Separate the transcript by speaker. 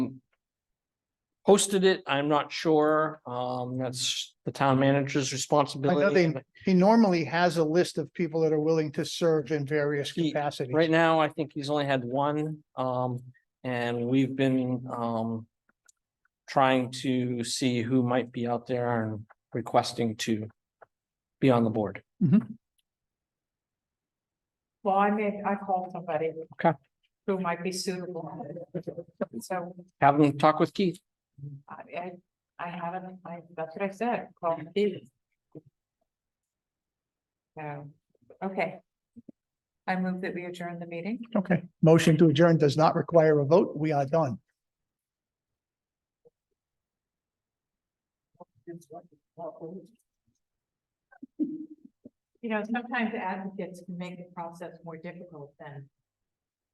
Speaker 1: posted it. I'm not sure. Um, that's the town manager's responsibility.
Speaker 2: they- He normally has a list of people that are willing to serve in various
Speaker 1: He-
Speaker 2: capacities.
Speaker 1: Right now, I think he's only had one, um, and we've been, um. Trying to see who might be out there and requesting to be on the board.
Speaker 3: Well, I may, I call somebody.
Speaker 1: Okay.
Speaker 3: Who might be suitable. So
Speaker 1: Have them talk with Keith.
Speaker 3: I, I, I haven't, I, that's what I said, call Keith. So, okay. I move that we adjourn the meeting.
Speaker 2: Okay, motion to adjourn does not require a vote. We are done.
Speaker 3: You know, sometimes advocates can make the process more difficult than